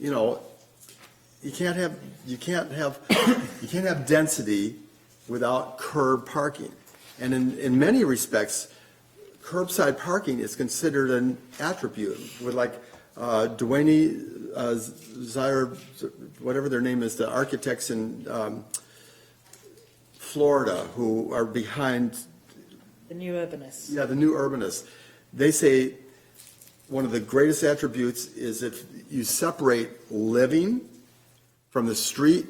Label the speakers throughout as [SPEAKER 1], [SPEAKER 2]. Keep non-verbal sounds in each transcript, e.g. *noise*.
[SPEAKER 1] you know, you can't have, you can't have, you can't have density without curb parking. And in, in many respects, curbside parking is considered an attribute, with like, uh, Duane, uh, Zyre, whatever their name is, the architects in, um, Florida who are behind
[SPEAKER 2] The new urbanists.
[SPEAKER 1] yeah, the new urbanists, they say one of the greatest attributes is if you separate living from the street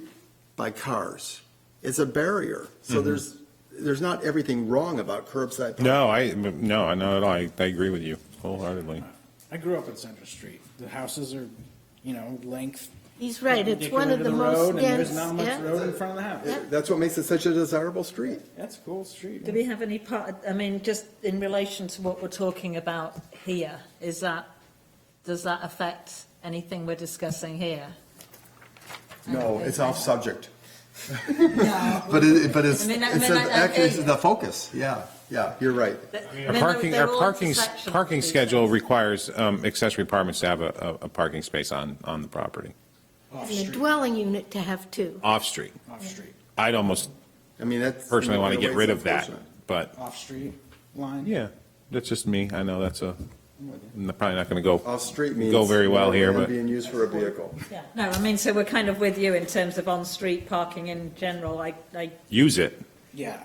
[SPEAKER 1] by cars. It's a barrier. So there's, there's not everything wrong about curbside. parking.
[SPEAKER 3] Mm-hmm. No, I, no, I know at all. I, I agree with you wholeheartedly.
[SPEAKER 4] I grew up in Central Street. The houses are, you know, length.
[SPEAKER 5] He's right, it's
[SPEAKER 4] perpendicular
[SPEAKER 5] one of
[SPEAKER 4] to
[SPEAKER 5] the
[SPEAKER 4] road,
[SPEAKER 5] most
[SPEAKER 4] and
[SPEAKER 5] dense,
[SPEAKER 4] There's not much
[SPEAKER 5] yeah.
[SPEAKER 4] road in front of the house.
[SPEAKER 5] Yeah.
[SPEAKER 1] That's what makes it such a desirable street.
[SPEAKER 4] That's a cool street.
[SPEAKER 2] Do we have any part, I mean, just in relation to what we're talking about here, is that, does that affect anything we're discussing here?
[SPEAKER 1] No, it's off
[SPEAKER 3] *laughs*
[SPEAKER 1] subject. *laughs* But it, but it's,
[SPEAKER 2] I mean, that-
[SPEAKER 1] it's
[SPEAKER 2] I mean, I- I-
[SPEAKER 1] actually it's the focus. Yeah, yeah, you're right.
[SPEAKER 3] Our parking, our parking, parking schedule requires um, accessory apartments to have a, a a parking space on, on the property,
[SPEAKER 4] Off
[SPEAKER 5] and a
[SPEAKER 4] street,
[SPEAKER 5] dwelling unit to have two.
[SPEAKER 3] off street.
[SPEAKER 4] off street,
[SPEAKER 3] I'd almost
[SPEAKER 1] I mean, that's.
[SPEAKER 3] personally want to
[SPEAKER 1] in a
[SPEAKER 3] get
[SPEAKER 1] way,
[SPEAKER 3] rid
[SPEAKER 1] it's
[SPEAKER 3] of that,
[SPEAKER 1] unfortunate.
[SPEAKER 3] but
[SPEAKER 4] off street line.
[SPEAKER 3] yeah, that's just me. I know that's a,
[SPEAKER 4] I'm with you.
[SPEAKER 3] I'm probably not going to go.
[SPEAKER 1] Off-street means.
[SPEAKER 3] Go very well here,
[SPEAKER 1] land
[SPEAKER 3] but-
[SPEAKER 1] Being used for a vehicle.
[SPEAKER 2] Yeah, no, I mean, so we're kind of with you in terms of on-street parking in general, I, I,
[SPEAKER 3] Use it.
[SPEAKER 4] Yeah.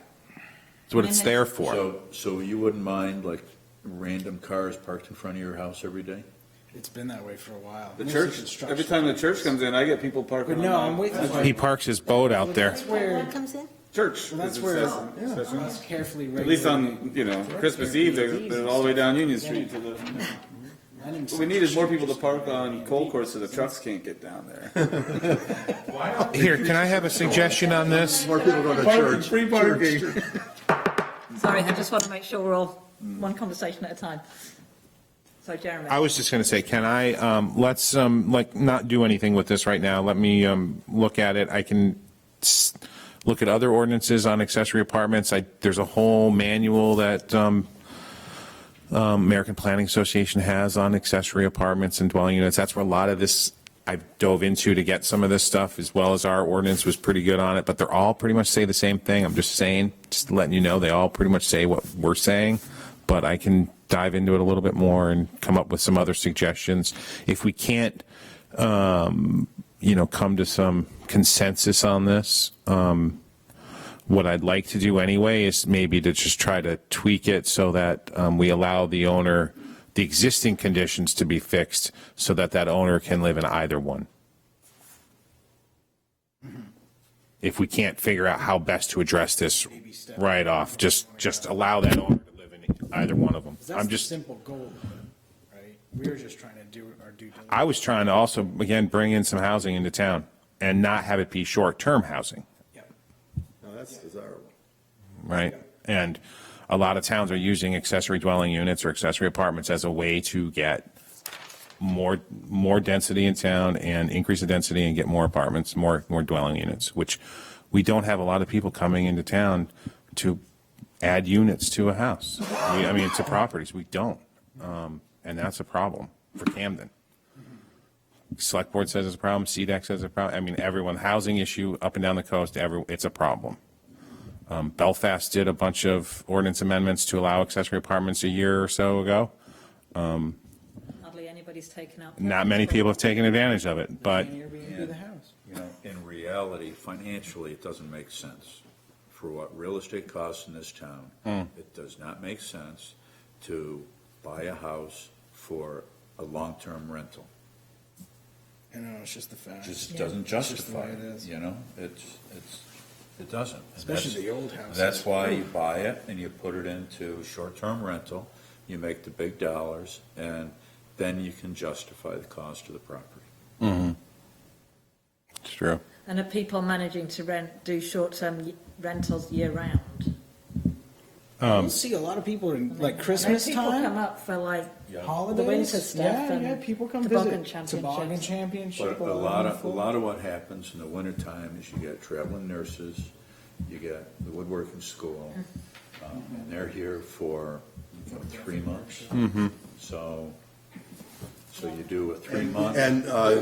[SPEAKER 3] It's what it's there for.
[SPEAKER 6] So, so you wouldn't mind like random cars parked in front of your house every day?
[SPEAKER 4] It's been that way for a while.
[SPEAKER 7] The
[SPEAKER 4] Mostly
[SPEAKER 7] church,
[SPEAKER 4] construction.
[SPEAKER 7] every time the church comes in, I get people
[SPEAKER 4] But
[SPEAKER 7] parking on
[SPEAKER 4] no, I'm
[SPEAKER 7] the
[SPEAKER 4] with you.
[SPEAKER 3] He parks his boat out there.
[SPEAKER 4] That's where,
[SPEAKER 5] That comes in?
[SPEAKER 7] church.
[SPEAKER 4] well, that's
[SPEAKER 7] is
[SPEAKER 4] where,
[SPEAKER 7] accessible.
[SPEAKER 4] that's carefully
[SPEAKER 7] At least
[SPEAKER 4] regulated.
[SPEAKER 7] on, you know, Christmas Eve, they're, they're all the way down Union Street to the, what we need is more people to park on Cold Course so the trucks can't get down there.
[SPEAKER 3] Here, can I have a suggestion on this?
[SPEAKER 1] More people go to church.
[SPEAKER 7] Free parking.
[SPEAKER 2] sorry, I just want to make sure we're all one conversation at a time. So Jeremy.
[SPEAKER 3] I was just going to say, can I, um, let's, um, like, not do anything with this right now. Let me, um, look at it. I can s- look at other ordinances on accessory apartments. I, there's a whole manual that, um, um, American Planning Association has on accessory apartments and dwelling units. That's where a lot of this I dove into to get some of this stuff, as well as our ordinance was pretty good on it, but they're all pretty much say the same thing. I'm just saying, just letting you know, they all pretty much say what we're saying, but I can dive into it a little bit more and come up with some other suggestions. If we can't, um, you know, come to some consensus on this, um, what I'd like to do anyway is maybe to just try to tweak it so that um, we allow the owner, the existing conditions to be fixed so that that owner can live in either one. If we can't figure out how best to address this right off, just, just allow that owner to live in either one of them.
[SPEAKER 4] That's
[SPEAKER 3] I'm
[SPEAKER 4] the
[SPEAKER 3] just,
[SPEAKER 4] simple goal, right? We were just trying to do our due diligence.
[SPEAKER 3] I was trying to also, again, bring in some housing into town and not have it be short-term housing.
[SPEAKER 4] Yep.
[SPEAKER 1] No, that's desirable.
[SPEAKER 3] right? And a lot of towns are using accessory dwelling units or accessory apartments as a way to get more, more density in town and increase the density and get more apartments, more, more dwelling units, which we don't have a lot of people coming into town to add units to a house. We- I mean, to properties, we don't. Um, And that's a problem for Camden. Select Board says it's a problem, CDEC says it's a problem. I mean, everyone, housing issue up and down the coast, every, it's a problem. Um, Belfast did a bunch of ordinance amendments to allow accessory apartments a year or so ago.
[SPEAKER 2] Hardly anybody's taken up.
[SPEAKER 3] Not many people have taken advantage of it, but
[SPEAKER 4] Airbnb the house.
[SPEAKER 6] You know, in reality, financially, it doesn't make sense. For what real estate costs in this town, it does not make sense to buy a house for a long-term rental.
[SPEAKER 4] You know, it's just the fact.
[SPEAKER 6] Just doesn't
[SPEAKER 4] It's just the
[SPEAKER 6] justify
[SPEAKER 4] way it
[SPEAKER 6] it,
[SPEAKER 4] is.
[SPEAKER 6] you know? It's, it's, it doesn't. And
[SPEAKER 4] Especially
[SPEAKER 6] that's-
[SPEAKER 4] the old houses.
[SPEAKER 6] That's why you buy it and you put it into short-term rental, you make the big dollars, and then you can justify the cost of the property.
[SPEAKER 3] Mm-hmm. it's true.
[SPEAKER 2] And are people managing to rent, do short-term y- rentals year-round?
[SPEAKER 6] um,
[SPEAKER 4] You'll see a lot of people in like Christmas
[SPEAKER 2] People
[SPEAKER 4] time.
[SPEAKER 2] come up for like
[SPEAKER 4] holidays.
[SPEAKER 2] The winter stuff
[SPEAKER 4] Yeah,
[SPEAKER 2] and
[SPEAKER 4] yeah, people come
[SPEAKER 2] toboggan
[SPEAKER 4] visit.
[SPEAKER 2] championships.
[SPEAKER 4] Toboggan championship.
[SPEAKER 6] But a lot of, a lot of what happens in the wintertime is you get traveling nurses, you get the woodworking school, um, and they're here for, you know, three months. So, so you do a three-month.
[SPEAKER 1] And, uh,